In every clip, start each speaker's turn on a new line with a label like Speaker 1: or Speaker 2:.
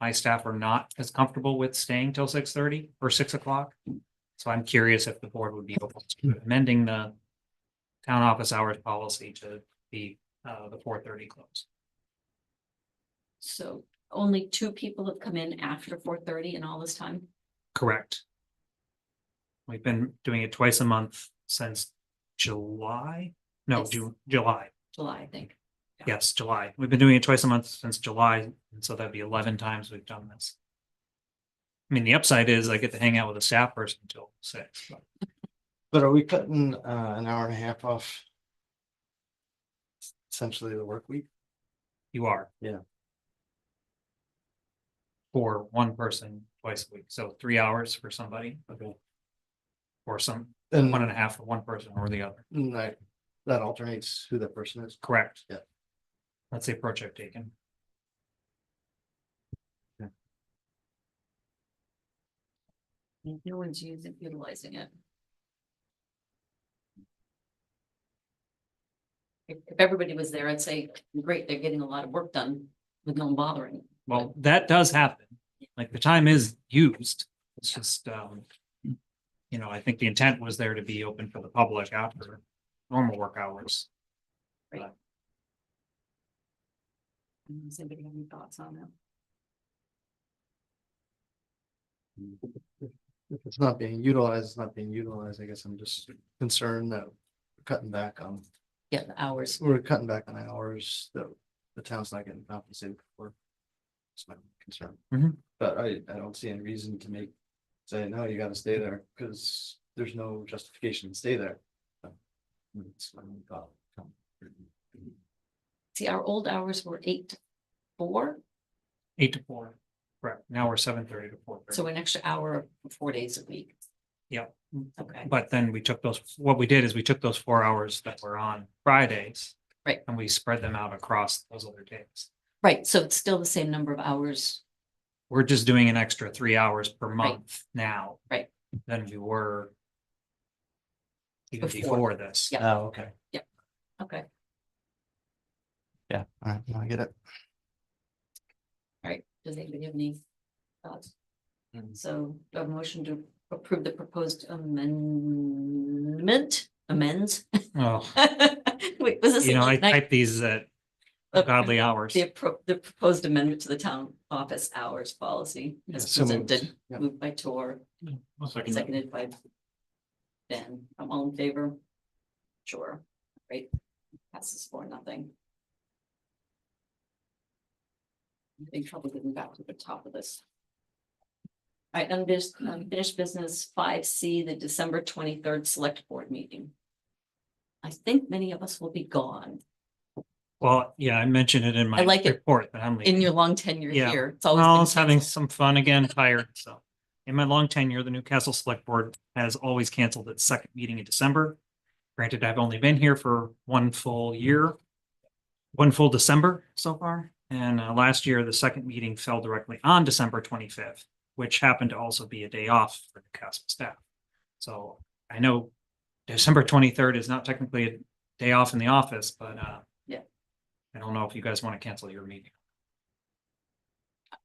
Speaker 1: my staff are not as comfortable with staying till six thirty or six o'clock. So I'm curious if the board would be open to amending the town office hours policy to be uh the four thirty close.
Speaker 2: So only two people have come in after four thirty in all this time.
Speaker 1: Correct. We've been doing it twice a month since July, no,
Speaker 2: Yes.
Speaker 1: June, July.
Speaker 2: July, I think.
Speaker 1: Yes, July. We've been doing it twice a month since July, and so that'd be eleven times we've done this. I mean, the upside is I get to hang out with a staff person until six. but
Speaker 3: But are we cutting uh an hour and a half off? Essentially the work week?
Speaker 1: You are.
Speaker 3: Yeah.
Speaker 1: For one person twice a week, so three hours for somebody.
Speaker 3: Okay.
Speaker 1: Or some,
Speaker 3: And
Speaker 1: one and a half for one person or the other.
Speaker 3: and that that alternates who that person is.
Speaker 1: Correct.
Speaker 3: Yeah.
Speaker 1: That's the approach I've taken.
Speaker 2: No one's using, utilizing it. If, if everybody was there, I'd say, great, they're getting a lot of work done with no one bothering.
Speaker 1: Well, that does happen. Like the time is used. It's just, um. You know, I think the intent was there to be open for the public after normal work hours.
Speaker 2: Does anybody have any thoughts on that?
Speaker 3: If it's not being utilized, it's not being utilized. I guess I'm just concerned that we're cutting back on,
Speaker 2: Yeah, the hours.
Speaker 3: we're cutting back on hours that the town's not getting compensated for. It's my concern.
Speaker 1: Mhm.
Speaker 3: But I I don't see any reason to make, say, no, you gotta stay there because there's no justification to stay there. So, It's my only thought.
Speaker 2: See, our old hours were eight to four,
Speaker 1: Eight to four, correct. Now we're seven thirty to four
Speaker 2: so
Speaker 1: thirty.
Speaker 2: an extra hour, four days a week.
Speaker 1: Yep.
Speaker 2: Okay,
Speaker 1: But then we took those, what we did is we took those four hours that were on Fridays.
Speaker 2: Right.
Speaker 1: And we spread them out across those other days.
Speaker 2: right, so it's still the same number of hours,
Speaker 1: We're just doing an extra three hours per month now.
Speaker 2: Right.
Speaker 1: Than we were. Even
Speaker 2: Before.
Speaker 1: before this.
Speaker 2: Yeah.
Speaker 3: Oh, okay.
Speaker 2: okay.
Speaker 3: Yeah, all right, I get it.
Speaker 2: All right, does anybody have any thoughts?
Speaker 3: Mm.
Speaker 2: So do I have a motion to approve the proposed amendment, amends?
Speaker 1: Oh,
Speaker 2: Wait, was this?
Speaker 1: you know, I
Speaker 2: last night?
Speaker 1: type these at
Speaker 2: The-
Speaker 1: godly hours.
Speaker 2: The appro, the proposed amendment to the town office hours policy as
Speaker 3: So moved.
Speaker 2: presented,
Speaker 3: Yeah.
Speaker 2: moved by Tor, seconded by Ben, I'm all in favor. Sure, great, passes for nothing. I'm Having trouble getting back to the top of this. All right, unfinished, unfinished business five C, the December twenty-third select board meeting. I think many of us will be gone
Speaker 1: Well, yeah, I mentioned it in my
Speaker 2: I like it.
Speaker 1: report that I'm
Speaker 2: in
Speaker 1: leaving.
Speaker 2: your long tenure
Speaker 1: Yeah.
Speaker 2: here. It's
Speaker 1: Well, I was
Speaker 2: always been
Speaker 1: having
Speaker 2: canceled.
Speaker 1: some fun again, tired, so. In my long tenure, the Newcastle Select Board has always canceled its second meeting in December. Granted, I've only been here for one full year. One full December so far, and uh, last year, the second meeting fell directly on December twenty-fifth, which happened to also be a day off for Newcastle staff. So I know December twenty-third is not technically a day off in the office, but uh.
Speaker 2: Yeah.
Speaker 1: I don't know if you guys want to cancel your meeting.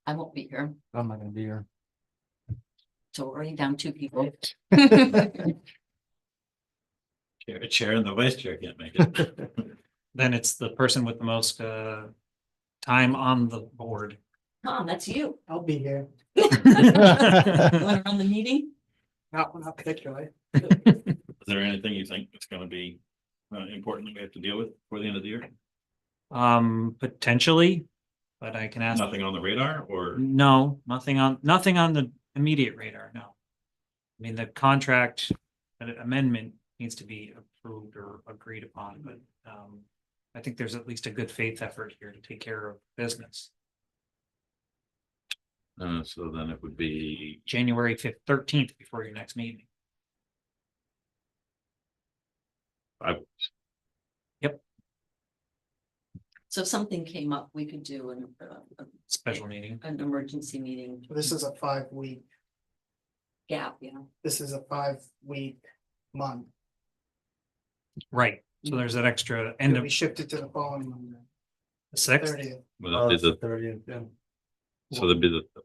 Speaker 2: I won't be here,
Speaker 3: I'm not gonna be here.
Speaker 2: so we're already down two people.
Speaker 4: Chair, chair and the vice chair can't make it.
Speaker 1: then it's the person with the most uh time on the board.
Speaker 2: Tom, that's you.
Speaker 3: I'll be here.
Speaker 2: You want to run the meeting?
Speaker 3: Not one up particularly.
Speaker 4: Is there anything you think that's gonna be uh important that we have to deal with before the end of the year?
Speaker 1: Um, potentially, but I can ask.
Speaker 4: Nothing on the radar or
Speaker 1: Mm. No, nothing on, nothing on the immediate radar, no. I mean, the contract amendment needs to be approved or agreed upon, but um. I think there's at least a good faith effort here to take care of business.
Speaker 4: uh so then it would be
Speaker 1: January fifth, thirteenth before your next meeting.
Speaker 2: So if something came up, we could do an, uh,
Speaker 1: Special meeting,
Speaker 2: an emergency meeting
Speaker 5: This is a five week,
Speaker 2: gap, you know?
Speaker 5: this is a five week month.
Speaker 1: right? So there's that extra end
Speaker 5: We
Speaker 1: of
Speaker 5: shifted to the following Monday,
Speaker 1: sixth.
Speaker 3: Uh,
Speaker 5: thirtieth.
Speaker 4: well, is it
Speaker 3: Thirtieth, yeah.
Speaker 4: So there'd be the